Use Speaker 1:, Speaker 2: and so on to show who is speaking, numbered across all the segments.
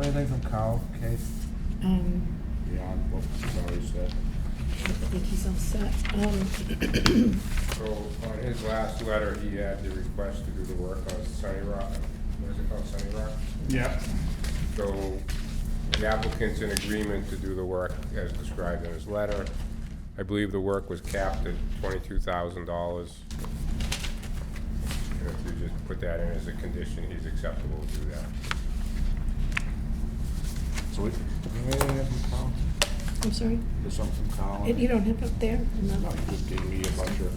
Speaker 1: anything uh, from Kyle, Kate?
Speaker 2: Um,
Speaker 3: beyond what was already said.
Speaker 2: I think he's all set. Um,
Speaker 3: So on his last letter, he had the request to do the work on Sunny Rock, what is it called, Sunny Rock?
Speaker 4: Yeah.
Speaker 3: So the applicant's in agreement to do the work as described in his letter. I believe the work was capped at twenty-two thousand dollars. And if you just put that in as a condition, he's acceptable to do that.
Speaker 4: So we,
Speaker 1: Anything from Kyle?
Speaker 2: I'm sorry?
Speaker 4: there's something
Speaker 2: And
Speaker 4: Colin.
Speaker 2: You don't have up there?
Speaker 4: No,
Speaker 2: No.
Speaker 4: you just gave me a bunch of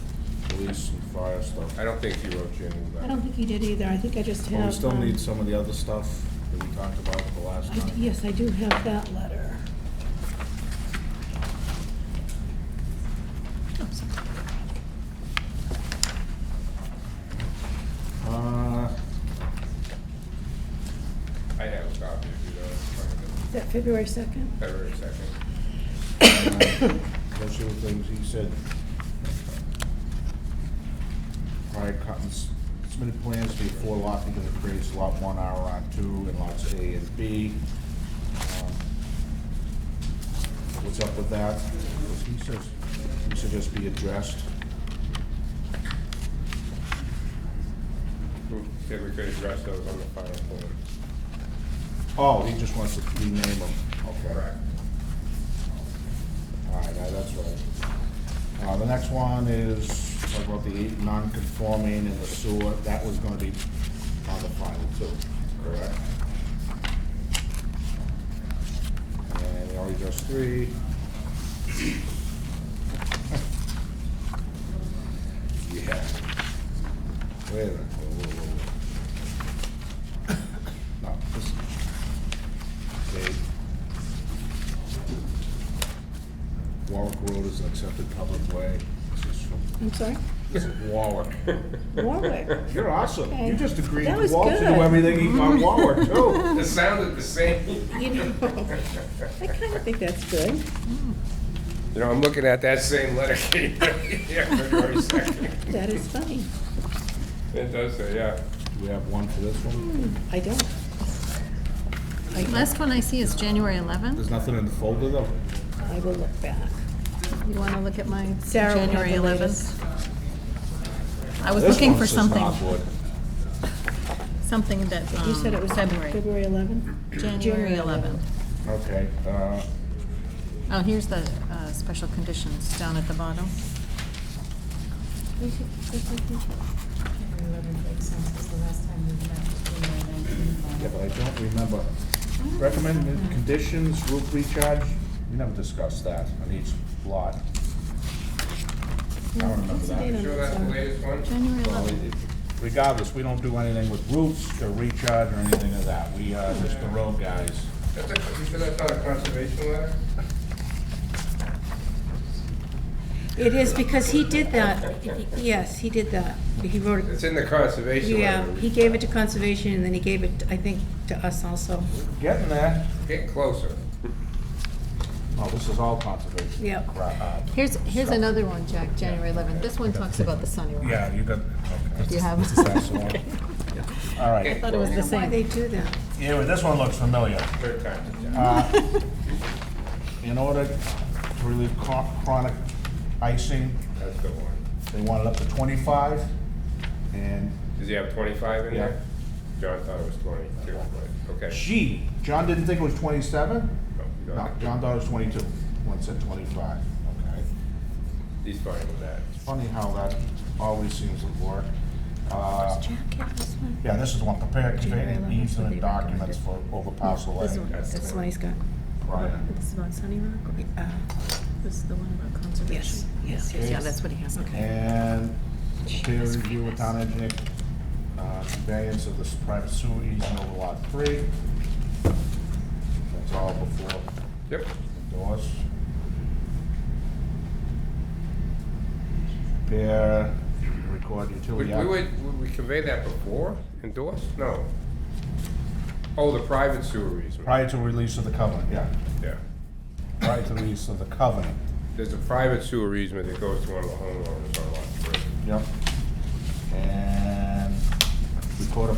Speaker 4: police and fire stuff.
Speaker 3: I don't think he wrote you a new
Speaker 2: I
Speaker 3: letter.
Speaker 2: don't think you did either. I think I just have.
Speaker 4: But we still
Speaker 2: um,
Speaker 4: need some of the other stuff that we talked about the last
Speaker 2: I d-
Speaker 4: time.
Speaker 2: Yes, I do have that letter. Oh, sorry.
Speaker 4: Uh,
Speaker 3: I have a copy if you don't, find
Speaker 2: Is that February 2nd?
Speaker 3: it. February second.
Speaker 4: Those are the things he said. Prior cuttings, submitted plans to be four lot because it creates lot one R on two and lots A and B. Um, What's up with that? He says, he should just be addressed.
Speaker 3: Then we could address those on the final form.
Speaker 4: Oh, he just wants to rename them, okay.
Speaker 3: Correct.
Speaker 4: All right, now that's right. Uh, the next one is talk about the eight non-conforming in the sewer, that was gonna be on the final too, correct? And we already just three. Yeah. Wait a minute, whoa, whoa, whoa, whoa. No, this. Okay. Warwick Road is an accepted public way. This is from,
Speaker 2: I'm sorry?
Speaker 4: this is Warwick.
Speaker 2: Warwick.
Speaker 4: You're awesome.
Speaker 2: Okay.
Speaker 4: You just agreed
Speaker 2: That
Speaker 4: to
Speaker 2: was
Speaker 4: Walt to do
Speaker 2: good.
Speaker 4: everything he on Warwick too.
Speaker 3: It sounded the same.
Speaker 2: You know, I kind of think that's good.
Speaker 3: You know, I'm looking at that same letter, Kate, yeah, February second.
Speaker 2: That is funny.
Speaker 3: It does say, yeah.
Speaker 4: Do we have one for this one?
Speaker 2: I don't. I don't.
Speaker 5: Last one I see is January 11th.
Speaker 4: There's nothing in the folder though.
Speaker 2: I will look back.
Speaker 5: You want to look at my
Speaker 2: Sarah will have
Speaker 5: January
Speaker 2: the
Speaker 5: 11th? I was
Speaker 4: This
Speaker 5: looking
Speaker 4: one
Speaker 5: for
Speaker 4: says
Speaker 5: something,
Speaker 4: Norwood.
Speaker 5: something that,
Speaker 2: You said it
Speaker 5: um,
Speaker 2: was
Speaker 5: February,
Speaker 2: February 11th?
Speaker 5: January 11th.
Speaker 4: Okay, uh,
Speaker 5: Oh, here's the uh, special conditions down at the bottom.
Speaker 2: January 11th.
Speaker 6: January 11th makes sense, because the last time we met was January 19th.
Speaker 4: yeah, but I don't remember. Recommended conditions, roof recharge, we never discussed that on each lot. I don't remember
Speaker 2: What's the
Speaker 4: that.
Speaker 2: date on
Speaker 3: Sure
Speaker 2: that,
Speaker 3: that's the
Speaker 2: Sarah?
Speaker 3: latest one?
Speaker 5: January
Speaker 4: Well,
Speaker 5: 11th.
Speaker 4: it- Regardless, we don't do anything with roofs or recharge or anything of that. We are just the road guys.
Speaker 3: That's a, you sure that's not a conservation letter?
Speaker 2: It is because he did that. Yes, he did that. He wrote it.
Speaker 3: It's in the conservation
Speaker 2: Yeah,
Speaker 3: letter.
Speaker 2: he gave it to conservation and then he gave it, I think, to us also.
Speaker 4: Getting there.
Speaker 3: Getting closer.
Speaker 4: Oh, this is all conservation.
Speaker 2: Yep.
Speaker 4: crap, uh,
Speaker 5: Here's, here's another one, Jack, January 11th. This one talks about the Sunny Rock.
Speaker 4: Yeah, you got,
Speaker 5: Do
Speaker 4: okay.
Speaker 5: you have?
Speaker 4: That's the one. All right.
Speaker 5: Thought it was the
Speaker 2: Why
Speaker 5: same.
Speaker 2: they do that?
Speaker 4: Yeah, but this one looks familiar.
Speaker 3: Third time.
Speaker 4: Uh, In order to relieve chron- chronic icing,
Speaker 3: That's the one.
Speaker 4: they want it up to 25. And
Speaker 3: Does he have twenty-five in there? John thought it was twenty-two, but, okay. Oh,
Speaker 4: she, John didn't think it was 27?
Speaker 3: No, you don't
Speaker 4: No,
Speaker 3: have to.
Speaker 4: John thought it was 22. One said 25. Okay.
Speaker 3: He's fine with that.
Speaker 4: Funny how that always seems to work. Uh,
Speaker 2: Jacket, this one?
Speaker 4: Yeah, this is the one, prepare conveying
Speaker 2: January 11th, what they
Speaker 4: easement documents
Speaker 2: recommended.
Speaker 4: for over parcel
Speaker 2: This
Speaker 4: A.
Speaker 2: one,
Speaker 3: that's the
Speaker 2: that's the
Speaker 3: one.
Speaker 2: one he's got.
Speaker 4: Right.
Speaker 5: This is about Sunny Rock?
Speaker 2: Uh,
Speaker 5: This is the one about
Speaker 2: Yes,
Speaker 5: conservation?
Speaker 2: yes, yes.
Speaker 5: Yeah, that's what he has.
Speaker 2: Okay.
Speaker 4: And peer review with town engineer, uh, conveyance of this private sewer easement over lot three. That's all before
Speaker 3: Yep.
Speaker 4: doors. Prepare, record
Speaker 3: We,
Speaker 4: utility.
Speaker 3: we would, we conveyed that before, endorsed? No. Oh, the private sewer easement,
Speaker 4: Prior to release of the covenant, yeah,
Speaker 3: yeah.
Speaker 4: prior to release of the covenant,
Speaker 3: There's a private sewer easement that goes to one of the homeowners on lot three.
Speaker 4: ehm, yep. And record a